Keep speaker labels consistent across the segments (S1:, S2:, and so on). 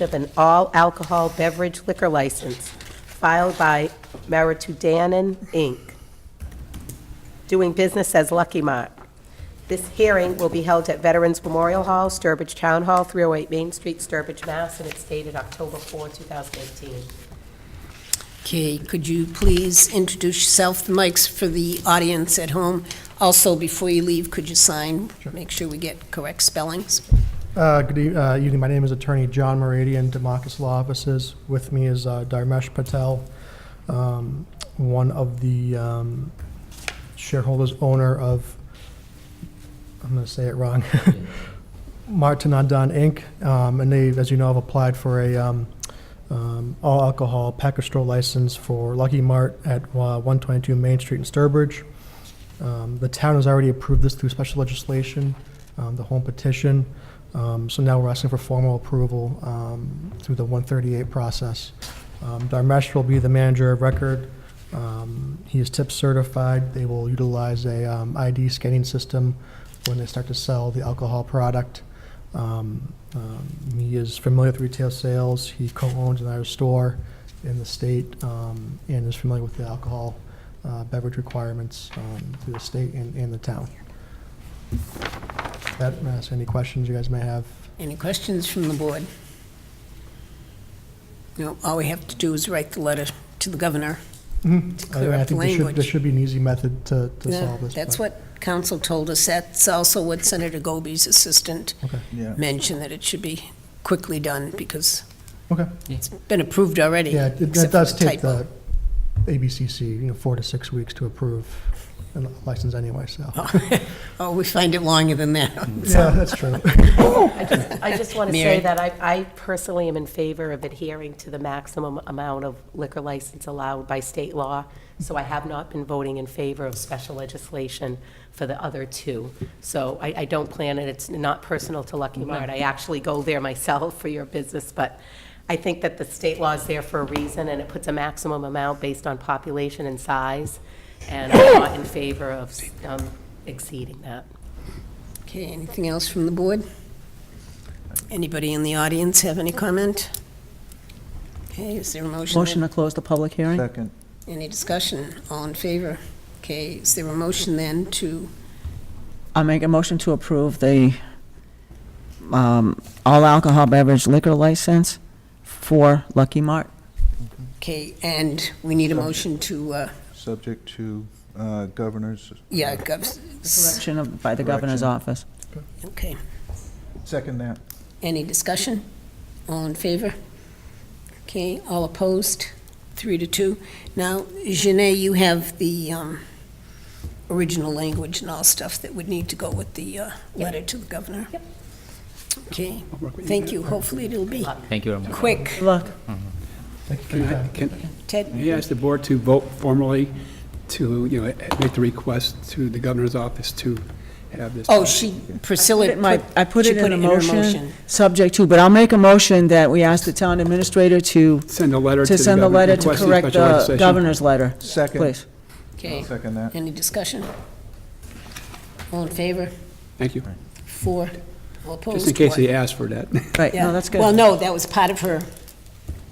S1: of an all-alcohol beverage liquor license filed by Maritudanan, Inc., doing business as Lucky Mart. This hearing will be held at Veterans Memorial Hall, Sturbridge Town Hall, 308 Main Street, Sturbridge, Mass., and it's dated October 4, 2018.
S2: Okay, could you please introduce yourself, the mics for the audience at home? Also, before you leave, could you sign? Make sure we get correct spellings.
S3: Uh, Good eve- uh, evening, my name is Attorney John Moradian, Democus Law Offices. With me is uh, Dharmesh Patel, um, one of the um, shareholders, owner of, I'm going to say it wrong, Martinadon Inc., Um, and they, as you know, have applied for a um, um, all-alcohol package store license for Lucky Mart at uh, 122 Main Street in Sturbridge. Um, The town has already approved this through special legislation, um, the home petition. Um, So now we're asking for formal approval um, through the 138 process. Um, Dharmesh will be the manager of record. Um, He is tip certified. They will utilize a um, ID scanning system when they start to sell the alcohol product. Um, um, He is familiar with retail sales. He co-owns another store in the state um, and is familiar with the alcohol uh, beverage requirements um, through the state and and the town. That, ask any questions you guys may have.
S2: Any questions from the board? No, all we have to do is write the letter to the governor. clear
S3: I- I
S2: up the
S3: think there should- There
S2: language.
S3: should be an easy method to to
S2: Yeah,
S3: solve this.
S2: That's
S3: but-
S2: what council told us. That's also what Senator Goby's assistant
S3: Okay.
S4: Yeah.
S2: mentioned, that it should be quickly done because
S3: Okay,
S2: it's been approved already.
S3: yeah, it- that
S2: except for
S3: does take
S2: typo.
S3: the ABCC, you know, four to six weeks to approve a license anyway, so.
S2: Oh, we find it longer than that.
S3: Yeah, that's true.
S1: I just- I just want to
S2: Mary?
S1: say that I I personally am in favor of adhering to the maximum amount of liquor license allowed by state law, so I have not been voting in favor of special legislation for the other two. So I I don't plan it, it's not personal to Lucky Mart, I actually go there myself for your business, but I think that the state law is there for a reason, and it puts a maximum amount based on population and size, and I'm not in favor of um, exceeding that.
S2: Okay, anything else from the board? Anybody in the audience have any comment? Okay, is there a motion?
S5: Motion to close the public hearing?
S4: Second,
S2: Any discussion? All in favor? Okay, is there a motion then to,
S5: I'll make a motion to approve the um, all alcohol beverage liquor license for Lucky Mart.
S2: okay, and we need a motion to, uh,
S4: subject to uh, governor's,
S2: yeah, gov- s-
S5: Correction of- by the governor's
S4: Correction.
S5: office.
S2: okay.
S4: second that.
S2: Any discussion? All in favor? Okay, all opposed? Three to two. Now, Janay, you have the um, original language and all stuff that would need to go with the uh, letter to the governor. Yep. Okay, thank you. Hopefully it'll be
S6: Thank you very much.
S2: quick.
S5: Look,
S7: Can I, can,
S2: Ted,
S7: may I ask the board to vote formally to, you know, make the request to the governor's office to have this?
S2: oh, she, Priscilla.
S5: it might- I put
S2: she
S5: it in a
S2: her
S5: motion, subject to, but I'll make a motion that we ask the town administrator to,
S7: Send a letter to
S5: to
S7: the
S5: send the
S7: governor.
S5: letter to
S7: requesting
S5: correct
S7: special
S5: the
S7: legislation.
S5: governor's letter,
S4: Second,
S5: please.
S2: Okay,
S4: second that.
S2: any discussion? All in favor?
S7: Thank you.
S2: Four. All opposed?
S7: Just in case
S2: One.
S7: he asked for that.
S5: Right,
S2: Yeah.
S5: no, that's good.
S2: Well, no, that was part of her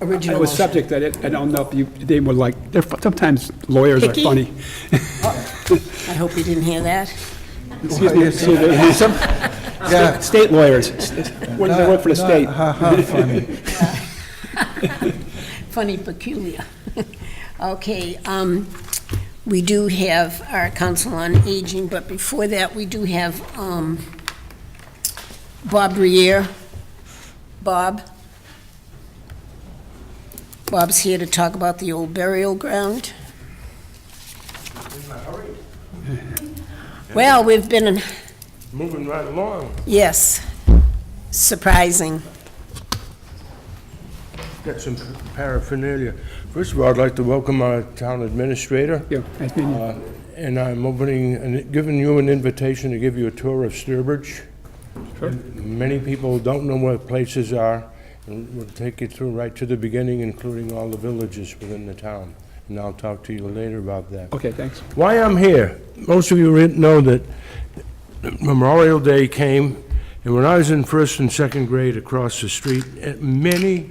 S2: original
S7: It was
S2: motion.
S7: subject, I didn't- I don't know if you, they were like, they're fu- sometimes lawyers are
S2: Picky.
S7: funny.
S2: I hope you didn't hear that.
S7: Excuse me, excuse me, some
S4: Yeah.
S7: state lawyers, when they work for the
S4: Not-
S7: state.
S4: Ha ha, funny.
S2: Funny peculiar. Okay, um, we do have our Council on Aging, but before that, we do have, um, Bob Rier. Bob? Bob's here to talk about the old burial ground. Well, we've been in
S8: Moving right along.
S2: Yes, surprising.
S8: Got some paraphernalia. First of all, I'd like to welcome our town administrator.
S7: Yeah, nice meeting you.
S8: Uh, And I'm opening, and giving you an invitation to give you a tour of Sturbridge. Many people don't know where places are, and we'll take you through right to the beginning, including all the villages within the town. And I'll talk to you later about that.
S7: Okay, thanks.
S8: Why I'm here, most of you re- know that Memorial Day came, And when I was in first and second grade across the street, eh, many